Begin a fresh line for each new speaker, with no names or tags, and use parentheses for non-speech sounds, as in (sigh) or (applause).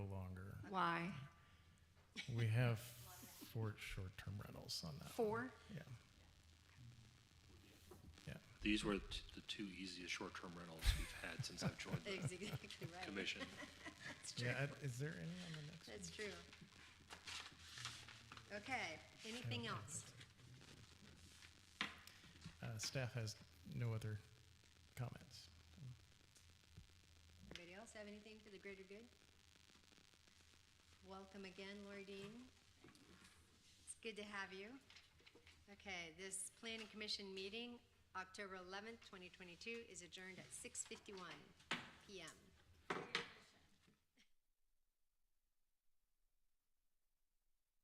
why?
We have four short-term rentals on that.
Four?
Yeah. Yeah.
These were t- the two easiest short-term rentals we've had since I've joined the
(laughs) Exactly right.
commission.
That's true.
Yeah, I- is there any on the next? one?
That's true. Okay, anything else?
Uh, staff has no other comments.
Anybody else have anything for the greater good? Welcome again, Lori Dean. It's good to have you. Okay, this planning commission meeting, October eleventh, twenty twenty-two, is adjourned at six fifty-one PM.